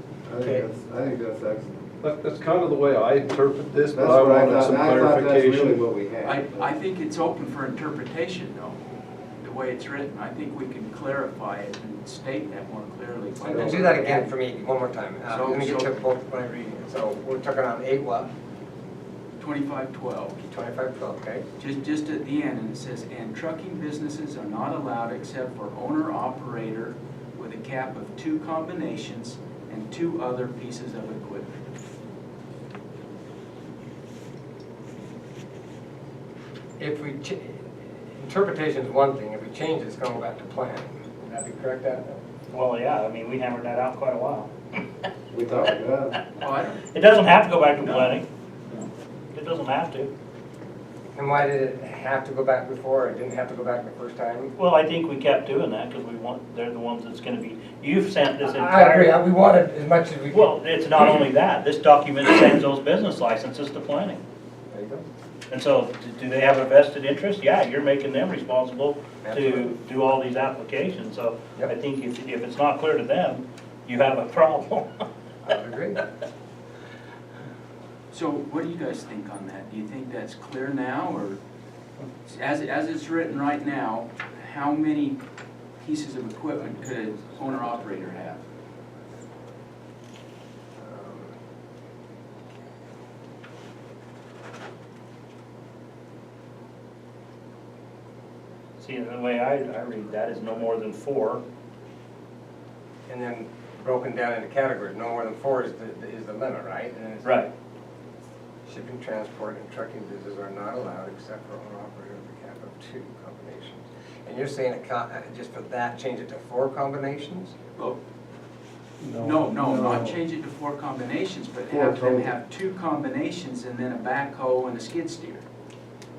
I think Okay. that's, I think that's excellent. That- That's kind of the way I interpret this, That's but I what I wanted thought, some and I thought that's really clarification. what we had. I, I think it's open for interpretation though, the way it's written. I think we can clarify it and state that more clearly. by- I don't- Do that again for me, one more time. Uh, So- Let me get so- to both, my reading. So we're talking on eight what? Twenty-five twelve, Twenty-five twelve, okay? just, just at the end, and it says, and trucking businesses are not allowed except for owner-operator with a cap of two combinations and two other pieces of equipment. If we, ch- interpretation is one thing, if we change it, it's gonna go back to planning. Would that be correct, Adam? Well, yeah, I mean, we hammered that out quite a while. We talked about it. Oh, I don't, It doesn't have to go back to planning. It doesn't have to. And why did it have to go back before, it didn't have to go back the first time? Well, I think we kept doing that because we want, they're the ones that's gonna be, you've sent this I agree, entire. I- we wanted as much as we could. Well, it's not only that, this document sends those business licenses to planning. There you go. And so, d- do they have a vested interest? Yeah, you're making them responsible to Absolutely. do all these applications. So I Yep. think if, if it's not clear to them, you have a problem. I would agree. Um, so what do you guys think on that? Do you think that's clear now, or as, as it's written right now, how many pieces of equipment could an owner-operator have? See, the way I, I read that is no more than four. And then broken down into categories, no more than four is the, is the limit, right? And it's- Right. Shipping, transport, and trucking businesses are not allowed except for owner operator with a cap of two combinations. And you're saying a co- uh, just for that, change it to four combinations? Well, No, no, not change it to four combinations, but have Four them total. have two combinations and then a backhoe and a skid steer.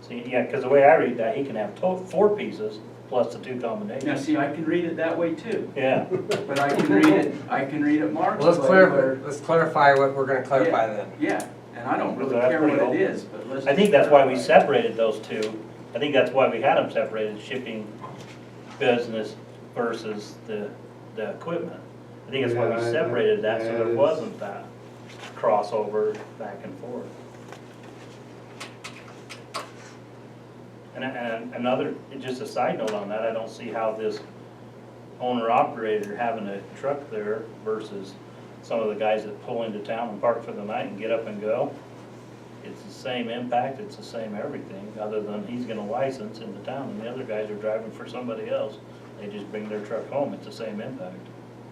See, yeah, because the way I read that, he can have to, four pieces plus the two Now, combinations. see, I can read it that way too, Yeah, but I can read it, I can read it Mark's Well, way. let's clarify, where- let's clarify what we're gonna clarify Yeah, then. Yeah, and I don't really That's care pretty what old. it is, but let's. I think that's why we clarify. separated those two. I think that's why we had them separated, shipping business versus the, the equipment. I think that's why we Yeah, I- I- separated that, so yeah, there it's- wasn't that crossover back and forth. And, and another, just a side note on that, I don't see how this owner-operator having a truck there versus some of the guys that pull into town and park for the night and get up and go. It's the same impact, it's the same everything, other than he's gonna license in the town, and the other guys are driving for somebody else. They just bring their truck home, it's the same impact.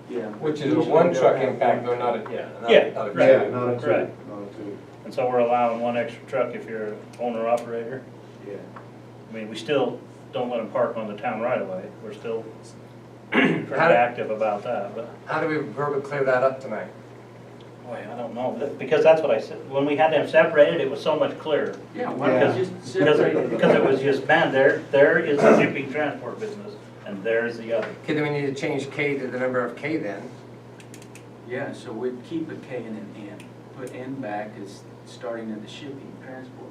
Yeah. Which is a one truck impact, though, not a, yeah, not a- Yeah, not a two. right. Yeah, not a two, Right. not a two. And so we're allowing one extra truck if you're an owner-operator. Yeah. I mean, we still don't let them park on the town right away. we're still pretty active about that, but. How do we verbally clear that up tonight? Boy, I don't know, that- because that's what I said, when we had them separated, it was so much clearer. Yeah, why don't Yeah. you just Because, separate it- it? because it was just, man, there, there is the shipping transport business, and there's the other. Okay, then we need to change K to the number of K then. Yeah, so we'd keep a K and an N, put N back as starting at the shipping transport.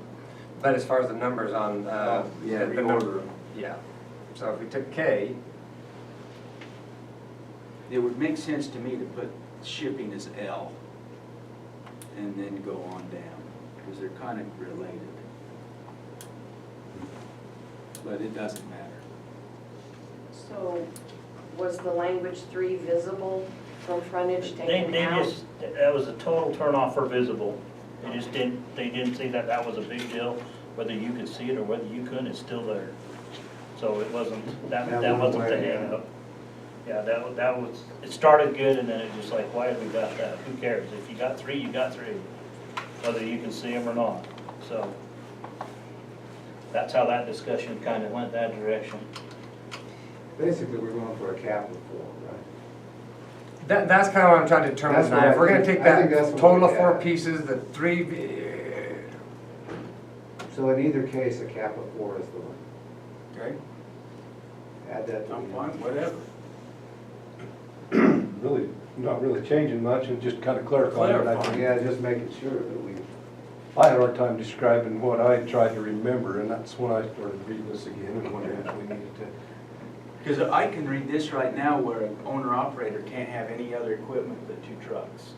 But as far as the numbers on, uh. Oh, Yeah, the- the reorder number- Yeah. So if we took K, It would make sense to me to put shipping as L and then go on down, because they're kind of related. But it doesn't matter. So was the language three visible from frontage They, taken they out? just, that was a total turnoff for visible. They just didn't, they didn't see that that was a big deal, whether you could see it or whether you couldn't, it's still there. So it wasn't, that, That that one wasn't the way, yeah. hangup. Yeah, that, wa- that was, it started good and then it just like, why have we got that? Who cares? If you got three, you got three, whether you can see them or not, so. That's how that discussion kind of went that direction. Basically, we're going for a capital form, right? That, that's kind of what I'm trying to determine That's what tonight. If I we're gonna think- take I that think that's what total of we four had. pieces, the three, uh, So in either case, a cap of four is the one. Okay. Add that to the. I'm fine, whatever. Really, not really changing much and just kind of clarifying what I Clarifying. think. Yeah, just making sure that we, I had a hard time describing what I tried to remember, and that's when I started reading this again and wondering if we needed to. Because I can read this right now where an owner-operator can't have any other equipment but two trucks.